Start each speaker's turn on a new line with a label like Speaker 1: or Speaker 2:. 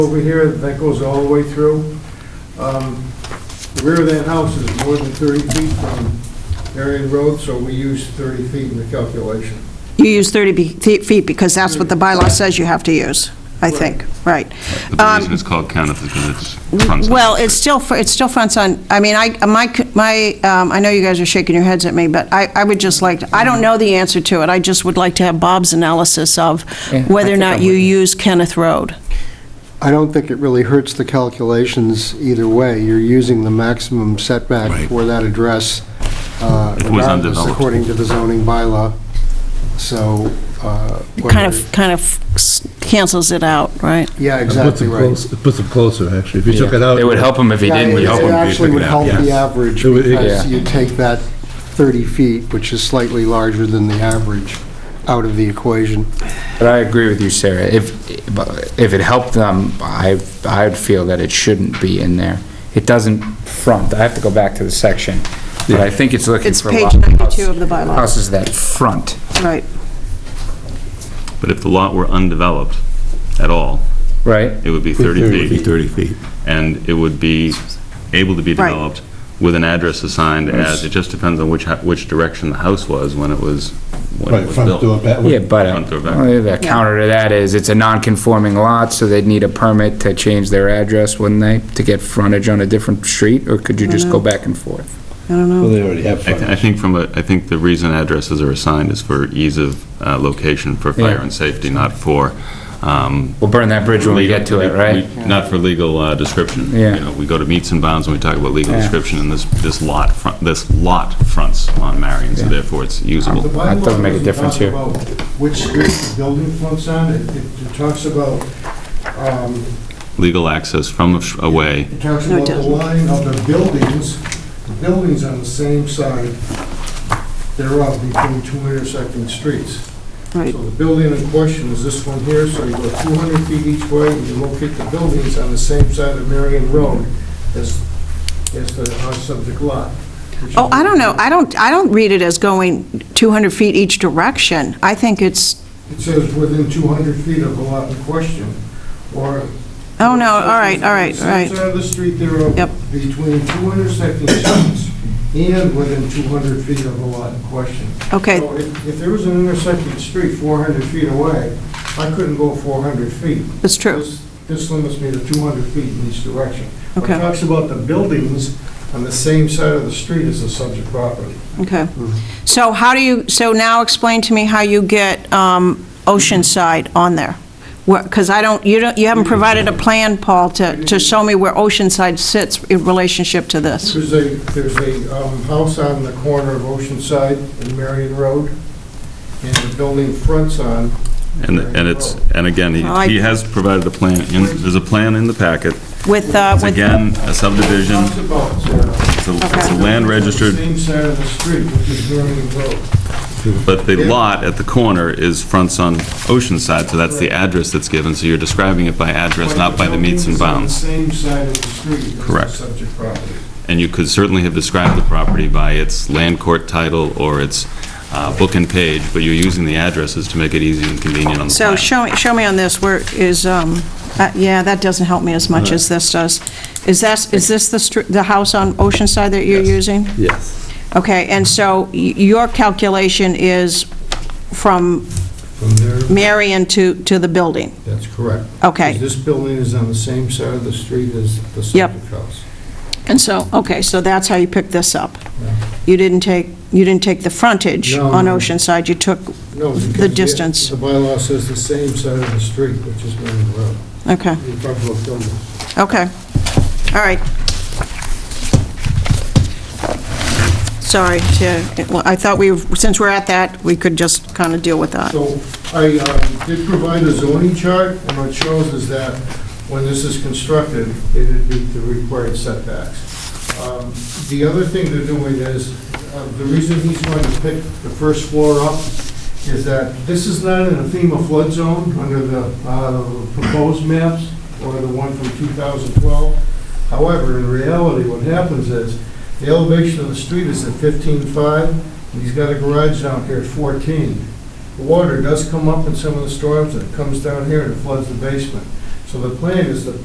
Speaker 1: over here that goes all the way through. Um, The rear of that house is more than 30 feet from Marion Road, so we use 30 feet in the calculation.
Speaker 2: You use 30 be- fe- feet because that's what the bylaw says you have to use, I think, right.
Speaker 3: But the reason
Speaker 2: Um,
Speaker 3: it's called Kenneth is because it's front.
Speaker 2: Well, it's still, fr- it's still fronts on, I mean, I, my, c- my, um, I know you guys are shaking your heads at me, but I, I would just like, I don't know the answer to it. I just would like to have Bob's analysis of
Speaker 4: Yeah, I
Speaker 2: whether or
Speaker 4: think
Speaker 2: not
Speaker 4: I'm
Speaker 2: you
Speaker 4: with you.
Speaker 2: use Kenneth Road.
Speaker 5: I don't think it really hurts the calculations either way. You're using the maximum setback
Speaker 6: Right.
Speaker 5: for that address uh,
Speaker 3: was
Speaker 5: regardless,
Speaker 3: undeveloped.
Speaker 5: according to the zoning bylaw. So... uh,
Speaker 2: Kind
Speaker 5: whether-
Speaker 2: of, kind of s- cancels it out, right?
Speaker 5: Yeah,
Speaker 6: It puts
Speaker 5: exactly
Speaker 6: them
Speaker 5: right.
Speaker 6: close- It puts them closer, actually. If you took it out.
Speaker 4: It would help him if he
Speaker 5: Yeah,
Speaker 4: didn't
Speaker 5: it-
Speaker 4: use
Speaker 6: help
Speaker 5: It
Speaker 6: them
Speaker 4: it.
Speaker 6: if you
Speaker 5: actually
Speaker 6: took
Speaker 5: would
Speaker 6: it out,
Speaker 5: help the
Speaker 6: yeah.
Speaker 5: average
Speaker 6: It would- it-
Speaker 5: because
Speaker 4: Yeah.
Speaker 5: you take that 30 feet, which is slightly larger than the average, out of the equation.
Speaker 4: But I agree with you, Sarah. If, if it helped them, I, I'd feel that it shouldn't be in there. It doesn't front. I have to go back to the section, but I think it's looking
Speaker 2: It's
Speaker 4: for.
Speaker 2: page
Speaker 4: lot-
Speaker 2: 92 of the bylaw,
Speaker 4: Houses that front.
Speaker 2: right.
Speaker 3: But if the lot were undeveloped at all,
Speaker 4: Right.
Speaker 3: it would be 30
Speaker 6: It'd be
Speaker 3: feet,
Speaker 6: 30 feet.
Speaker 3: and it would be able to be
Speaker 2: Right.
Speaker 3: developed with an address assigned as, it just depends on which, hou- which direction the house was when it was, when it
Speaker 6: Right,
Speaker 3: was
Speaker 6: front door,
Speaker 3: built.
Speaker 6: back.
Speaker 4: Yeah, but, uh,
Speaker 3: Front or back.
Speaker 4: well, the counter to that is, it's a non-conforming lot, so they'd need a permit to change their address, wouldn't they, to get frontage on a different street, or could you just go back and forth?
Speaker 6: Well, they already have
Speaker 3: I th- I
Speaker 6: frontage.
Speaker 3: think from a, I think the reason addresses are assigned is for ease of uh, location for fire
Speaker 4: Yeah.
Speaker 3: and safety, not for, um...
Speaker 4: We'll burn that bridge when we get to it,
Speaker 3: legal-
Speaker 4: right?
Speaker 3: we- Not for legal uh, description.
Speaker 4: Yeah.
Speaker 3: You know, we go to meets and bounds when we talk about legal
Speaker 4: Yeah.
Speaker 3: description, and this, this lot, front- this lot fronts on Marion, so
Speaker 4: Yeah.
Speaker 3: therefore it's usable.
Speaker 2: Uh,
Speaker 1: The
Speaker 4: That
Speaker 1: bylaw
Speaker 4: doesn't make a
Speaker 1: doesn't
Speaker 4: difference
Speaker 1: talk
Speaker 4: here.
Speaker 1: about Which street the building fronts on, it it- it talks about, um,
Speaker 3: Legal access from away,
Speaker 1: it talks
Speaker 2: No, it
Speaker 1: about the
Speaker 2: doesn't.
Speaker 1: line of the buildings, the buildings on the same side thereof between two intersecting streets.
Speaker 2: Right.
Speaker 1: So the building in question is this one here, so you go 200 feet each way, and you locate the buildings on the same side of Marion Road as, as the our subject lot. which
Speaker 2: Oh,
Speaker 1: is-
Speaker 2: I don't know, I don't, I don't read it as going 200 feet each direction. I think it's,
Speaker 1: It says within 200 feet of the lot in question, or...
Speaker 2: oh, no, all right, all right, all
Speaker 1: Same
Speaker 2: right.
Speaker 1: side of the street thereof,
Speaker 2: Yep.
Speaker 1: between two intersecting streets, and within 200 feet of the lot in question.
Speaker 2: Okay,
Speaker 1: So if if there was an intersecting street 400 feet away, I couldn't go 400 feet.
Speaker 2: that's true.
Speaker 1: This- This limits me to 200 feet in each direction. But
Speaker 2: Okay.
Speaker 1: It talks about the buildings on the same side of the street as the subject property.
Speaker 2: Okay. So how do you, so now explain to me how you get um, Oceanside on there? Because I don't, you don't, you haven't provided a plan, Paul, to, to show me where Oceanside sits in relationship to this.
Speaker 1: There's a, there's a um, house on the corner of Oceanside and Marion Road, and the building fronts on.
Speaker 3: and, and it's, and again, he
Speaker 2: Well, Oh, I-
Speaker 3: he has provided a plan, in- there's a plan in the packet.
Speaker 2: With, uh,
Speaker 3: It's
Speaker 2: with,
Speaker 3: again a subdivision,
Speaker 1: Talks about, uh,
Speaker 3: it's a it's a
Speaker 2: Okay.
Speaker 3: land registered,
Speaker 1: Same side of the street, which is Marion Road.
Speaker 3: but the lot at the corner is fronts on Oceanside, so that's the address that's given, so you're describing it by address, not by the meets and
Speaker 1: Buildings on the
Speaker 3: bounds.
Speaker 1: Same side of the street as the
Speaker 3: Correct.
Speaker 1: subject property.
Speaker 3: And you could certainly have described the property by its land court title or its uh, book and page, but you're using the addresses to make it easy and convenient on the
Speaker 2: so
Speaker 3: plan.
Speaker 2: show me, show me on this, where is, um, uh, yeah, that doesn't help me as much as this does. Is that, is this the, str- the house on Oceanside that you're using?
Speaker 6: Yes.
Speaker 2: Okay, and so y- your calculation is from
Speaker 1: From there,
Speaker 2: Marion to, to the building?
Speaker 1: that's correct.
Speaker 2: Okay.
Speaker 1: This building is on the same side of the street as the
Speaker 2: Yep.
Speaker 1: subject house.
Speaker 2: And so, okay, so that's how you picked this up. You didn't take, you didn't take the frontage
Speaker 1: No,
Speaker 2: on
Speaker 1: no.
Speaker 2: Oceanside, you took,
Speaker 1: No, because
Speaker 2: The distance.
Speaker 1: The bylaw says the same side of the street, which is Marion Road.
Speaker 2: okay,
Speaker 1: You talk about buildings.
Speaker 2: okay, all right. Sorry to, well, I thought we, since we're at that, we could just kind of deal with that.
Speaker 1: So I uh, did provide a zoning chart, and what it shows is that when this is constructed, it'd be the required setbacks. Um, The other thing they're doing is, uh, the reason he's going to pick the first floor up is that this is not in a FEMA flood zone under the uh, proposed maps or the one from 2012. However, in reality, what happens is, the elevation of the street is at 15.5, and he's got a garage down here at 14. The water does come up in some of the storms, and it comes down here and it floods the basement. So the plan is to